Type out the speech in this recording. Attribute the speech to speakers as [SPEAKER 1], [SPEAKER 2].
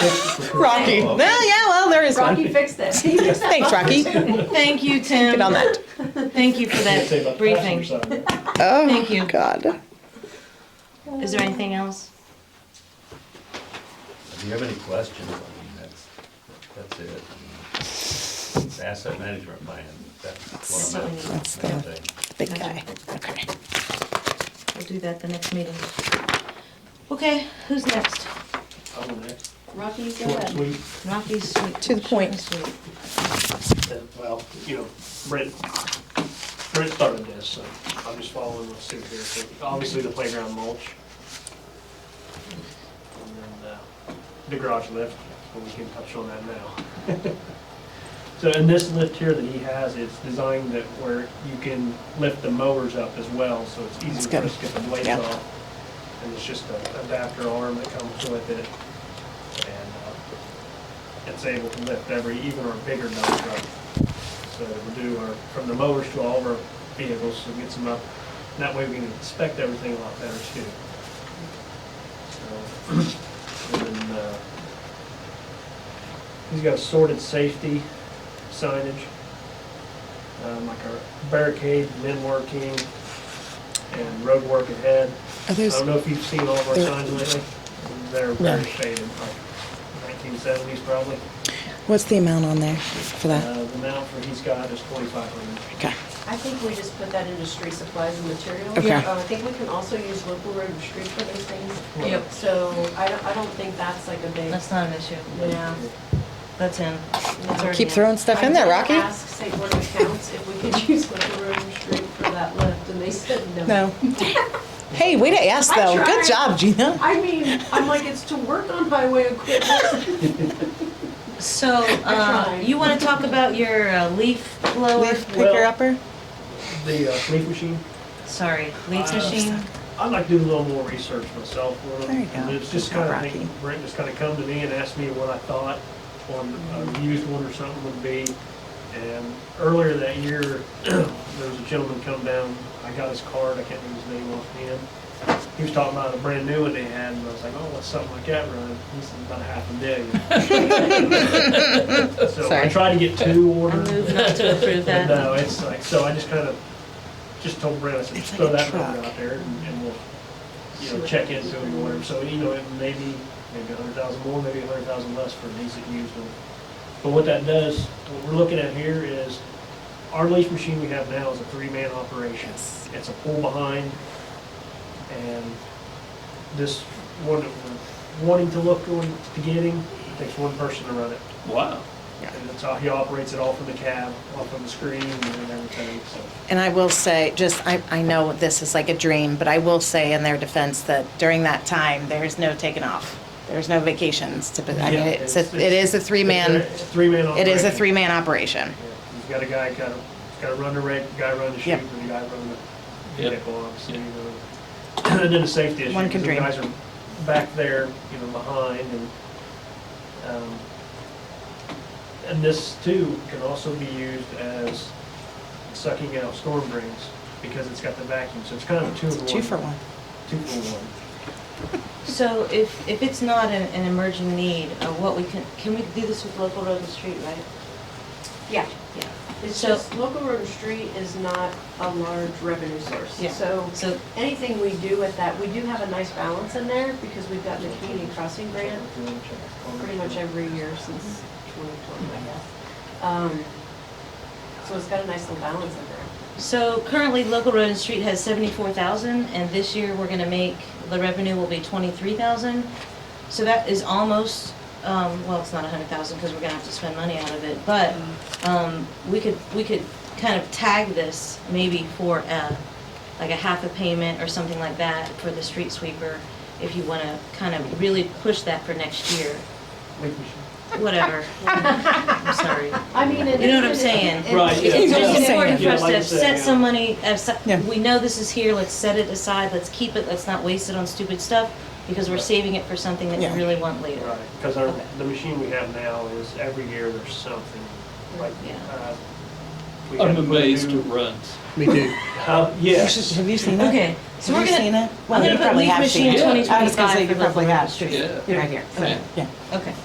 [SPEAKER 1] Rocky. Well, yeah, well, there is
[SPEAKER 2] Rocky
[SPEAKER 1] one.
[SPEAKER 2] fixed it. He fixed that.
[SPEAKER 1] Thanks, Rocky. Get
[SPEAKER 3] Thank you, Tim.
[SPEAKER 1] on that.
[SPEAKER 3] Thank you for that briefing.
[SPEAKER 1] Oh,
[SPEAKER 3] Thank you.
[SPEAKER 1] God.
[SPEAKER 3] Is there anything else?
[SPEAKER 4] If you have any questions, I mean, that's, that's it. It's asset management plan, that's
[SPEAKER 3] So
[SPEAKER 4] what
[SPEAKER 3] we
[SPEAKER 4] I'm
[SPEAKER 3] need-
[SPEAKER 4] at.
[SPEAKER 1] That's
[SPEAKER 4] Same
[SPEAKER 1] the
[SPEAKER 4] thing.
[SPEAKER 1] big guy. Okay.
[SPEAKER 3] We'll do that the next meeting. Okay, who's next?
[SPEAKER 2] Rocky, go ahead.
[SPEAKER 3] Rocky's sweet.
[SPEAKER 1] To the point.
[SPEAKER 3] Sweet, sweet.
[SPEAKER 5] Well, you know, Brent, Brent started this, so I'm just following what's here. So Obviously, the playground mulch. And then uh, the garage lift, but we can touch on that now. So in this lift here that he has, it's designed that where you can lift the mowers up as well, so it's
[SPEAKER 1] That's
[SPEAKER 5] easier for
[SPEAKER 1] good.
[SPEAKER 5] us to get the blades
[SPEAKER 1] Yeah.
[SPEAKER 5] off. And it's just an adapter arm that comes with it. And uh, it's able to lift every, even our bigger dump truck. So we do our, from the mowers to all of our vehicles, so it gets them up. And That way we can inspect everything a lot better too. So, And then, uh, he's got sorted safety signage, um, like our barricade, men working, and road work ahead.
[SPEAKER 1] Are
[SPEAKER 5] I
[SPEAKER 1] those,
[SPEAKER 5] don't know if you've seen all of our
[SPEAKER 1] There-
[SPEAKER 5] signs lately. They're very faded, like 1970s probably.
[SPEAKER 1] what's the amount on there for that?
[SPEAKER 5] Uh, The amount for he's got is 2,500.
[SPEAKER 1] Okay.
[SPEAKER 2] I think we just put that into street supplies and materials.
[SPEAKER 1] Okay.
[SPEAKER 2] Uh, I think we can also use local road and street for those things.
[SPEAKER 3] Yep,
[SPEAKER 2] So I don't, I don't think that's like a big,
[SPEAKER 3] that's not an issue.
[SPEAKER 2] yeah.
[SPEAKER 3] That's in. That's already
[SPEAKER 1] Keep
[SPEAKER 3] in.
[SPEAKER 1] throwing stuff in there, Rocky.
[SPEAKER 2] I did ask St. Board of Accounts if we could use local road and street for that lift, and they said no.
[SPEAKER 1] No. Hey, way to ask
[SPEAKER 2] I
[SPEAKER 1] though.
[SPEAKER 2] tried.
[SPEAKER 1] Good job, Gina.
[SPEAKER 2] I mean, I'm like, it's to work on highway equipment.
[SPEAKER 3] So, uh,
[SPEAKER 2] tried.
[SPEAKER 3] you want to talk about your uh, leaf blower?
[SPEAKER 1] Leaf picker upper.
[SPEAKER 5] The uh, leaf machine,
[SPEAKER 3] Sorry, leaf
[SPEAKER 5] Uh,
[SPEAKER 3] machine?
[SPEAKER 5] I'd like to do a little more research myself on it.
[SPEAKER 1] There you go.
[SPEAKER 5] And It's just
[SPEAKER 1] Not
[SPEAKER 5] kind of, thing-
[SPEAKER 1] rocky.
[SPEAKER 5] Brent just kind of come to me and asked me what I thought on
[SPEAKER 1] Mm-hmm.
[SPEAKER 5] a used one or something would be. And earlier that year, there was a gentleman come down, I got his card, I can't remember his name offhand. He was talking about a brand new one they had, and I was like, oh, what's something like that running? He said, about a half a million. So I
[SPEAKER 1] Sorry.
[SPEAKER 5] tried to get two
[SPEAKER 3] I
[SPEAKER 5] orders.
[SPEAKER 3] move not to approve
[SPEAKER 5] And
[SPEAKER 3] that.
[SPEAKER 5] no, it's like, so I just kind of, just told Brent, I said,
[SPEAKER 1] It's
[SPEAKER 5] just
[SPEAKER 1] like
[SPEAKER 5] throw
[SPEAKER 1] a
[SPEAKER 5] that number
[SPEAKER 1] truck.
[SPEAKER 5] out there and and we'll, you know, check into it or whatever. So, you know, it may be maybe a hundred thousand more, maybe a hundred thousand less for a decent used one. But what that does, what we're looking at here is, our leaf machine we have now is a three-man operation.
[SPEAKER 1] Yes.
[SPEAKER 5] It's a pull behind, and this one, that we're wanting to look on to getting, it takes one person to run it.
[SPEAKER 4] Wow.
[SPEAKER 5] And that's how he operates it all from the cab, off from the screen and everything, so.
[SPEAKER 1] And I will say, just, I, I know this is like a dream, but I will say in their defense that during that time, there's no taking off. There's no vacations to, I mean,
[SPEAKER 5] Yeah,
[SPEAKER 1] it's, a- it is a three-man,
[SPEAKER 5] It's a three-man
[SPEAKER 1] it is a
[SPEAKER 5] operation.
[SPEAKER 1] three-man operation.
[SPEAKER 5] Yeah, You've got a guy, got a, got to run the rig, guy run the chute,
[SPEAKER 1] Yep.
[SPEAKER 5] and a guy run the
[SPEAKER 4] Yep.
[SPEAKER 5] vehicle, obviously. you know. And then the safety issue.
[SPEAKER 1] One can
[SPEAKER 5] 'cause
[SPEAKER 1] dream.
[SPEAKER 5] The guys are back there, you know, behind and, um, and this too can also be used as sucking out storm drains because it's got the vacuum, so it's kind of a two in one.
[SPEAKER 1] Two for one.
[SPEAKER 5] Two for one.
[SPEAKER 3] So if, if it's not an, an emerging need, uh, what we can, can we do this with local road and street, right?
[SPEAKER 2] Yeah.
[SPEAKER 3] Yeah.
[SPEAKER 2] It's
[SPEAKER 3] So-
[SPEAKER 2] just, local road and street is not a large revenue source.
[SPEAKER 3] Yeah.
[SPEAKER 2] So
[SPEAKER 3] So
[SPEAKER 2] anything we do with that, we do have a nice balance in there because we've gotten a community crossing grant pretty much every year since 2020, I guess. Um, So it's got a nice little balance in there.
[SPEAKER 3] So currently, local road and street has seventy-four thousand, and this year we're gonna make, the revenue will be twenty-three thousand. So that is almost, um, well, it's not a hundred thousand, because we're gonna have to spend money out of it, but, um, we could, we could kind of tag this maybe for a, like a half a payment or something like that for the street sweeper, if you wanna kind of really push that for next year,
[SPEAKER 5] Leaf machine.
[SPEAKER 3] whatever. I'm sorry.
[SPEAKER 2] I mean, it.
[SPEAKER 3] You know what I'm
[SPEAKER 2] it-
[SPEAKER 3] saying?
[SPEAKER 2] it-
[SPEAKER 4] Right, yeah.
[SPEAKER 3] It's
[SPEAKER 1] Yeah.
[SPEAKER 3] just important for
[SPEAKER 5] Yeah,
[SPEAKER 3] us
[SPEAKER 5] like
[SPEAKER 3] to
[SPEAKER 5] you said,
[SPEAKER 3] set
[SPEAKER 5] yeah.
[SPEAKER 3] some money,
[SPEAKER 1] Yeah.
[SPEAKER 3] aside. we know this is here, let's set it aside, let's keep it, let's not waste it on stupid stuff, because we're saving it for something that we
[SPEAKER 1] Yeah.
[SPEAKER 3] really want later.
[SPEAKER 5] Right, because our,
[SPEAKER 3] Okay.
[SPEAKER 5] the machine we have now is every year there's something, like,
[SPEAKER 3] Yeah.
[SPEAKER 5] uh. we
[SPEAKER 6] I'm
[SPEAKER 5] had to put a
[SPEAKER 6] amazed
[SPEAKER 5] new-
[SPEAKER 6] it runs.
[SPEAKER 5] We do. Uh, yes.
[SPEAKER 1] Have you seen it?
[SPEAKER 3] Okay, so we're
[SPEAKER 1] Have you seen
[SPEAKER 3] gonna,
[SPEAKER 1] it?
[SPEAKER 3] I'm
[SPEAKER 1] Well, you
[SPEAKER 3] gonna put
[SPEAKER 1] probably
[SPEAKER 3] leaf
[SPEAKER 1] have
[SPEAKER 3] machine
[SPEAKER 1] seen it.
[SPEAKER 6] Yeah.
[SPEAKER 3] twenty
[SPEAKER 1] I was gonna say
[SPEAKER 3] twenty-five
[SPEAKER 1] you
[SPEAKER 3] for local
[SPEAKER 1] probably
[SPEAKER 3] road
[SPEAKER 1] have.
[SPEAKER 3] and street.
[SPEAKER 6] Yeah.
[SPEAKER 1] Right here.
[SPEAKER 3] Okay.
[SPEAKER 1] Yeah.
[SPEAKER 3] Okay,